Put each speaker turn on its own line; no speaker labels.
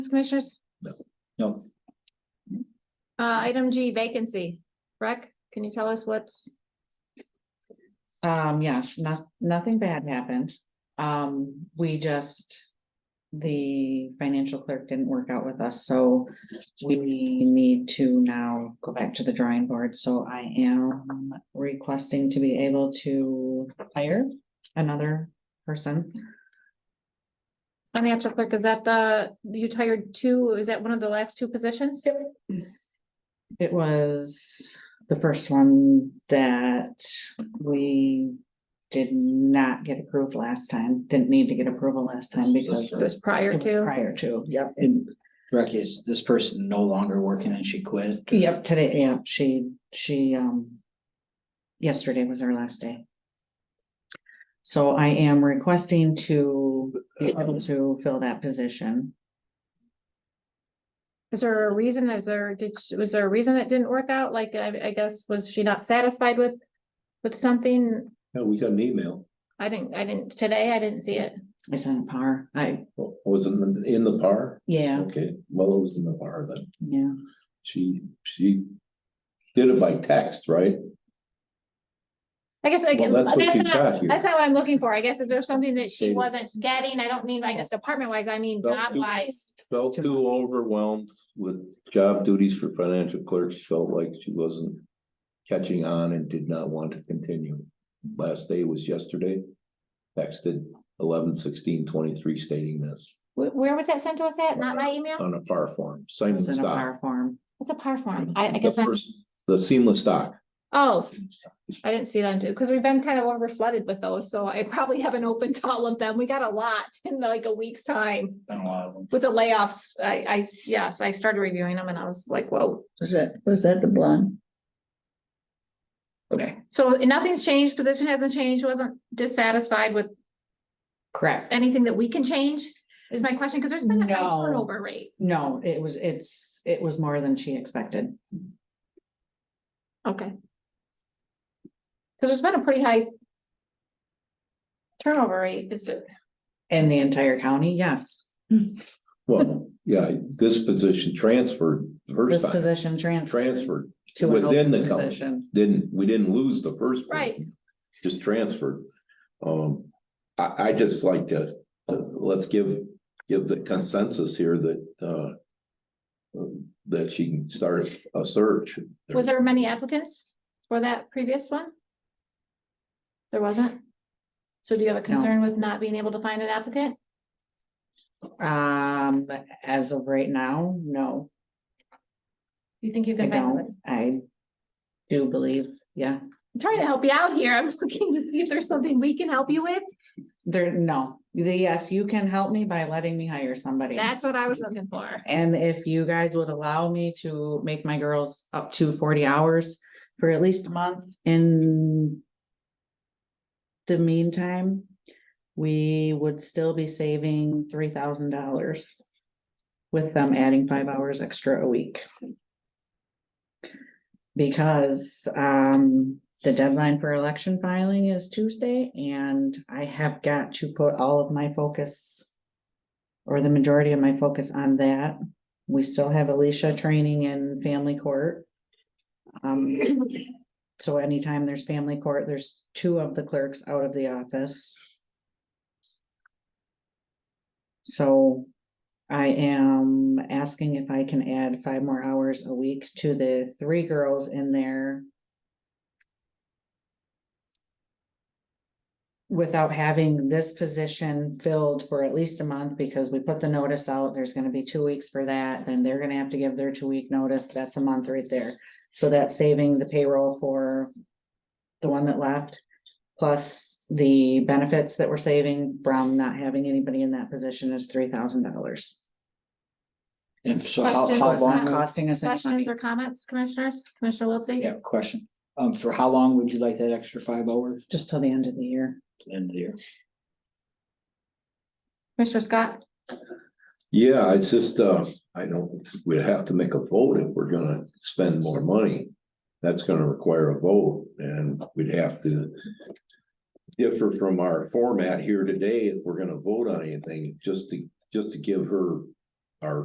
Commissioners?
No,
Uh, item G vacancy. Rec, can you tell us what's,
Um, yes, not, nothing bad happened. Um, we just. The financial clerk didn't work out with us, so we need to now go back to the drawing board, so I am requesting to be able to hire another person.
financial clerk, is that the, you tired two, is that one of the last two positions? Yep.
It was the first one that we did not get approved last time, didn't need to get approval last time because.
It was prior
It was
to,
Prior to, yep.
and Rick is this person no longer working and she quit?
Yep, today, yeah, she, she, um. Yesterday was her last day. So I am requesting to be able to fill that position.
is there a reason, is there, did, she- was there a reason it didn't work out? Like, I, I guess, was she not satisfied with, with something?
Yeah, we got an email.
I didn't, I didn't, today, I didn't see it.
I sent a par, I,
Oh, Was it in the- in the par?
yeah,
Okay, well, it was in the par then.
yeah,
She, she did it by text, right?
I guess, again,
Well, that's what
that's
you
not,
got here.
that's not what I'm looking for. I guess, is there something that she
Okay.
wasn't getting? I don't mean, I guess, department wise, I mean,
Well,
job wise.
Felt too overwhelmed with job duties for financial clerk. She felt like she wasn't catching on and did not want to continue. Last day was yesterday. Texted eleven sixteen twenty-three stating this
Where, where was that sent to us at? Not my email?
on a par form,
it
Simon
was in a par
stock.
form.
It's a par form. I, I
The
guess, I-
first- The seamless stock.
oh, I didn't see them too, because we've been kind of over flooded with those, so I probably haven't opened all of them. We got a lot in like a week's time.
Been a lot of them.
With the layoffs, I, I, yes, I started reviewing them and I was like, whoa.
Was that, was that the blonde?
Okay.
So nothing's changed, position hasn't changed, wasn't dissatisfied with
Correct.
anything that we can change, is my question, because there's been a high
No.
turnover rate.
No, it was, it's, it was more than she expected.
Okay. Because there's been a pretty high turnover rate, is it?
In the entire county, yes.
Well, yeah, this position transferred the
This
first time,
position transferred.
transferred.
to an
within
open
the county.
position.
didn't, we didn't lose the first. one,
Right.
Just transferred. Um, I, I just like to, uh, let's give, give the consensus here that, uh. That she can start a search.
Was there many applicants for that previous one? There wasn't? So do you have a concern with not being able to find an applicant?
Um, as of right now, no.
You think you
I
can find one?
don't, I do believe, yeah,
I'm trying to help you out here. I'm looking to see if there's something we can help you with.
there, no, the, yes, you can help me by letting me hire somebody.
That's what I was looking for.
And if you guys would allow me to make my girls up to forty hours for at least a month in the meantime, we would still be saving three thousand dollars with them adding five hours extra a week. Because um, the deadline for election filing is Tuesday and I have got to put all of my focus or the majority of my focus on that. We still have Alicia training in family court. Um, so anytime there's family court, there's two of the clerks out of the office. So I am asking if I can add five more hours a week to the three girls in there. Without having this position filled for at least a month, because we put the notice out, there's gonna be two weeks for that, then they're gonna have to give their two-week notice, that's a month right there. So that's saving the payroll for the one that left, plus the benefits that we're saving from not having anybody in that position is three thousand dollars.
And so how,
Questions
how
or
long,
something?
Costing us. any money.
Questions or comments, commissioners? Commissioner Wiltie?
yeah, question. Um, for how long would you like that extra five hours
Just till the end of the year.
to the end of the year?
Commissioner Scott?
Yeah, it's just, uh, I don't, we'd have to make a vote if we're gonna spend more money. That's gonna require a vote and we'd have to. Differ from our format here today, if we're gonna vote on anything, just to, just to give her